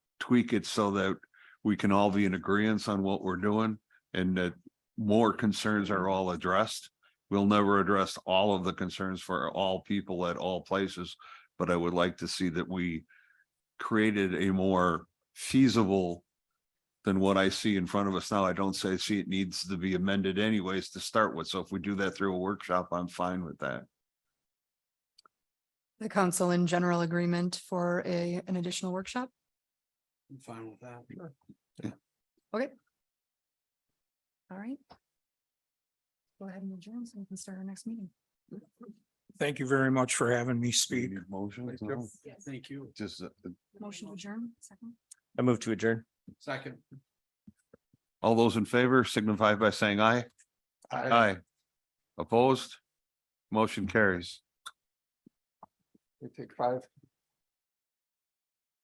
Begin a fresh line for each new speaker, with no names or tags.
tweak it so that we can all be in agreement on what we're doing and that more concerns are all addressed. We'll never address all of the concerns for all people at all places, but I would like to see that we created a more feasible than what I see in front of us now. I don't say, see, it needs to be amended anyways to start with. So if we do that through a workshop, I'm fine with that.
The council in general agreement for a, an additional workshop?
I'm fine with that.
All right. Go ahead and adjourn so we can start our next meeting.
Thank you very much for having me speak.
Need Motion,
Thank you.
No,
Thank you.
just, uh,
Motion to adjourn, second.
I move to adjourn.
Second.
all those in favor signify by saying aye. Aye. Opposed? Motion carries.
We take five.